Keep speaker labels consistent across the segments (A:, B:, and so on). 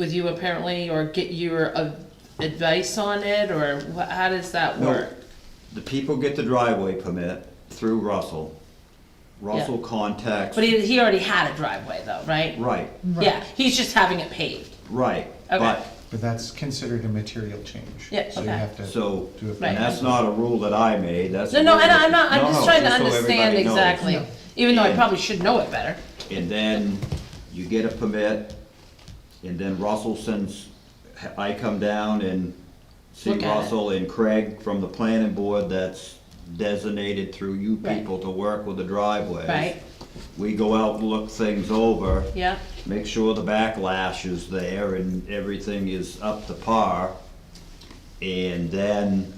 A: with you apparently, or get your uh, advice on it, or wha- how does that
B: No,
A: work?
B: the people get the driveway permit through Russell. Russell contacts,
A: But he, he already had a driveway though, right?
B: right,
A: Yeah, he's just having it paved.
B: right.
A: Okay.
B: But,
C: But that's considered a material change.
A: Yeah,
C: So you
A: okay.
C: have to.
B: so,
C: Do it.
B: and that's not a rule that I made, that's.
A: No,
B: a
A: no,
B: rule
A: and
B: that-
A: I'm not, I'm
B: No,
A: just
B: no,
A: trying to
B: so everybody
A: understand
B: knows.
A: exactly, even though I
B: And-
A: probably should know it better.
B: And then you get a permit, and then Russell sends, I come down and see
A: Look at it.
B: Russell and Craig from the planning board that's designated through you
A: Right.
B: people to work with the driveways.
A: Right.
B: We go out and look things over.
A: Yeah.
B: Make sure the backlash is there and everything is up to par. And then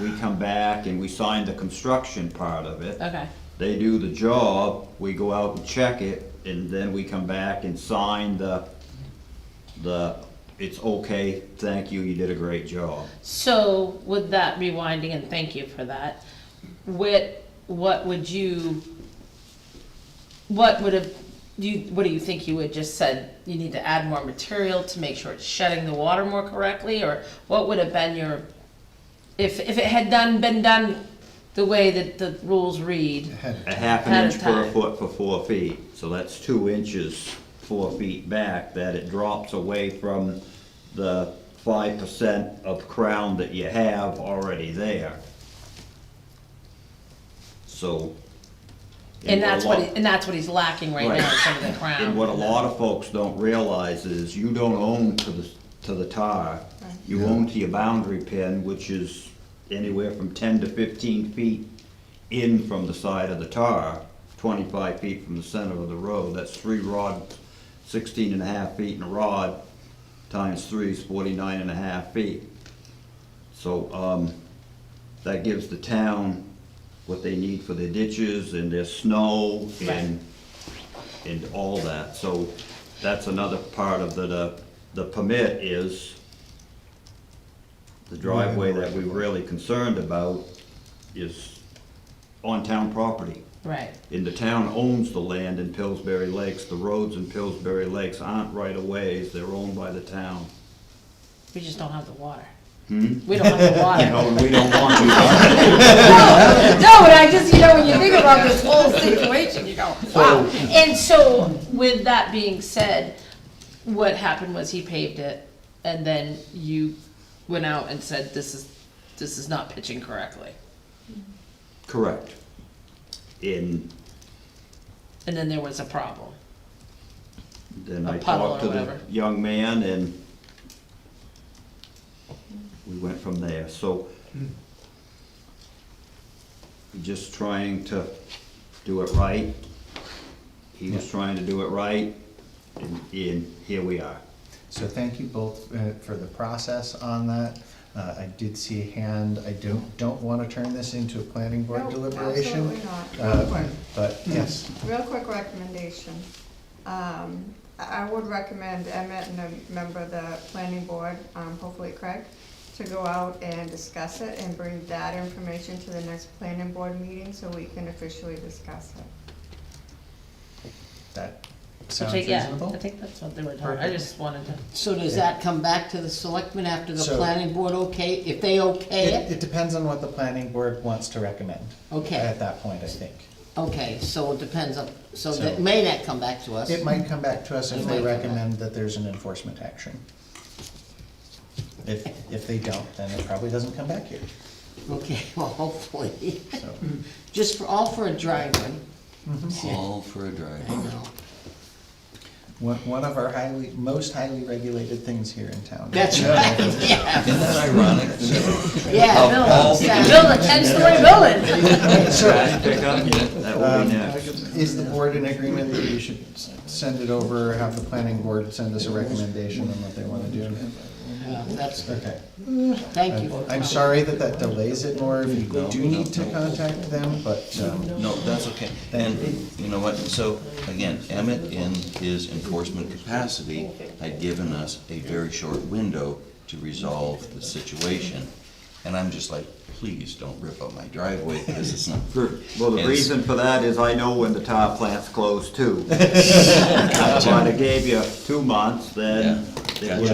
B: we come back and we sign the construction part of it.
A: Okay,
B: They do the job, we go out and check it, and then we come back and sign the, the, it's okay, thank you, you did a great job.
A: so with that rewinding, and thank you for that, what, what would you, what would have, you, what do you think you would just said, you need to add more material to make sure it's shedding the water more correctly, or what would have been your, if, if it had done, been done the way that the rules read?
B: A
C: Ahead.
B: half an
A: Ahead of
B: inch per
A: time.
B: foot for four feet, so that's two inches, four feet back, that it drops away from the five percent of crown that you have already there. So.
A: And that's what,
B: a
A: he-
B: lot-
A: and that's what he's lacking right now, is some of the crown.
B: And what a lot of folks don't realize is you don't own to the, to the tar. You own to your boundary pin, which is anywhere from ten to fifteen feet in from the side of the tar, twenty-five feet from the center of the road. That's three rod, sixteen and a half feet in a rod, times three is forty-nine and a half feet. So, um, that gives the town what they need for their ditches and their snow and, and all that. So that's another part of the- the, the permit is the driveway that we're really concerned about is on town property.
A: Right,
B: And the town owns the land in Pillsbury Lakes. The roads in Pillsbury Lakes aren't right-of-ways, they're owned by the town.
A: we just don't have the water.
B: Hmm?
A: We don't have the water.
B: No, we don't want to.
A: No, but I just, you know, when you think about this whole situation, you go, wow. And so, with that being said, what happened was he paved it, and then you went out and said, this is, this is not pitching correctly.
B: Correct. In
A: And then there was a problem.
B: Then
A: A
B: I
A: puddle
B: talked to
A: or
B: the
A: whatever.
B: young man and we went from there, so. Just trying to do it right. He was trying to do it right, and, and here we are.
C: So thank you both uh, for the process on that. Uh, I did see a hand, I don't, don't want to turn this into a planning board
D: No,
C: deliberation.
D: absolutely Hmm. not.
C: uh, But yes,
D: Real quick recommendation. Um, I I would recommend Emmett and a member of the planning board, um, hopefully Craig, to go out and discuss it and bring that information to the next planning board meeting so we can officially discuss it.
C: that
A: So
C: sounds
A: yeah, I
C: reasonable.
A: think that's what they were talking, I just wanted to.
E: So does that come back to the selectmen after the
C: So-
E: planning board okay, if they
C: It,
E: okay it?
C: it depends on what the planning board wants to recommend.
E: Okay.
C: At that point, I think.
E: Okay, so it depends on, so
C: So-
E: that may not come back to us.
C: It might come back to us if they
E: It might come back.
C: recommend that there's an enforcement action. If, if they don't, then it probably doesn't come back here,
E: Okay, well, hopefully,
C: so.
E: just for, all for a driveway,
F: All for a
E: you
F: drive.
E: know.
C: One, one of our highly, most highly regulated things here in town.
E: That's right, yeah,
F: Isn't that ironic?
E: yeah,
F: Of
E: no,
F: all-
E: exactly.
A: Build a ten-story building.
B: Trash pickup, that will
C: Um,
B: be next.
C: Is the board in agreement that you should s- send it over, have the planning board send us a recommendation on what they wanna do?
E: Yeah, That's,
C: Okay.
E: thank you.
C: I'm I'm sorry that that delays it more, if you do need to contact them, but, um,
F: No, that's okay. And you know what, so again, Emmett in his enforcement capacity had given us a very short window to resolve the situation. And I'm just like, please don't rip up my driveway because it's not.
B: Well, the
F: Yes.
B: reason for that is I know when the tar plant's closed too. That's why they gave you two months, then
G: that
B: Gotcha.